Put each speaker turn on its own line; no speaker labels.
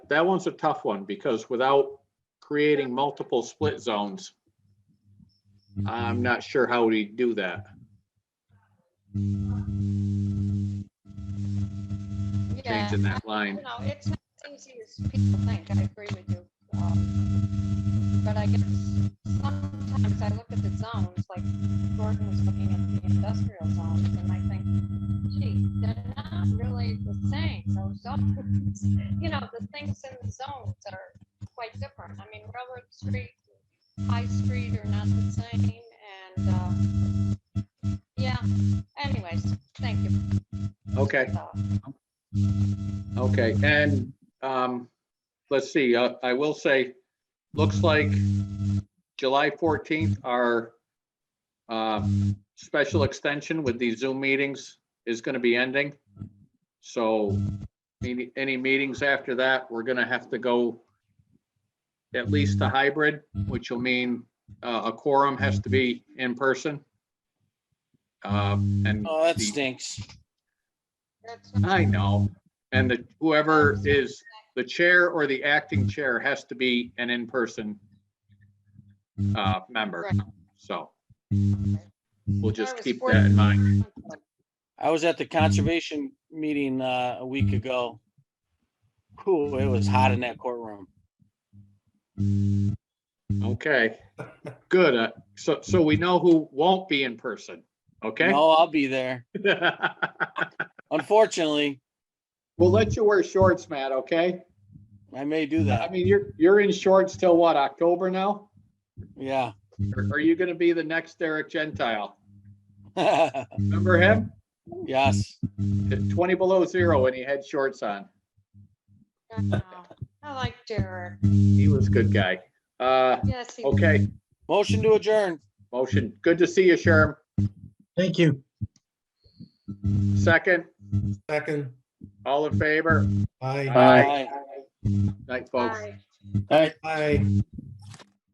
that one's a tough one because without creating multiple split zones, I'm not sure how we do that.
Yeah,
Changing that
You
line.
know, it's not as easy as people think, I agree with you. Um, But I guess sometimes I look at the zones, like Gordon was looking at the industrial zones, and I think, gee, they're not really the same, those zones. You know, the things in the zones are quite different. I mean, Railroad Street, High Street are not the same, and, uh, yeah, anyways, thank you.
Okay.
Uh,
Okay, and, um, let's see, uh, I will say, looks like July fourteenth, our, um, special extension with these Zoom meetings is gonna be ending. So, any, any meetings after that, we're gonna have to go at least a hybrid, which will mean, uh, a quorum has to be in person. Uh, and.
Oh, that
the-
stinks.
that's-
I know. And the, whoever is the chair or the acting chair has to be an in-person uh, member.
Right.
So we'll just
I was
keep
forced
that in mind.
to-
I was at the conservation meeting uh, a week ago. Ooh, it was hot in that courtroom.
Okay, good. Uh, So, so we know who won't be in person, okay?
No, I'll be there. Unfortunately,
We'll let you wear shorts, Matt, okay?
I may do
I
that.
mean, you're, you're in shorts till what, October now?
Yeah.
Or are you gonna be the next Eric Gentile?
yes.
Remember him? Twenty below zero and he had shorts on.
Wow. I like Derek.
He was a good guy. Uh,
Yes. he-
okay,
Motion to adjourn.
motion. Good to see you, Sherm.
Thank you.
Second,
Second.
all in favor?
Aye.
Aye. Night, folks.
Bye.
Aye.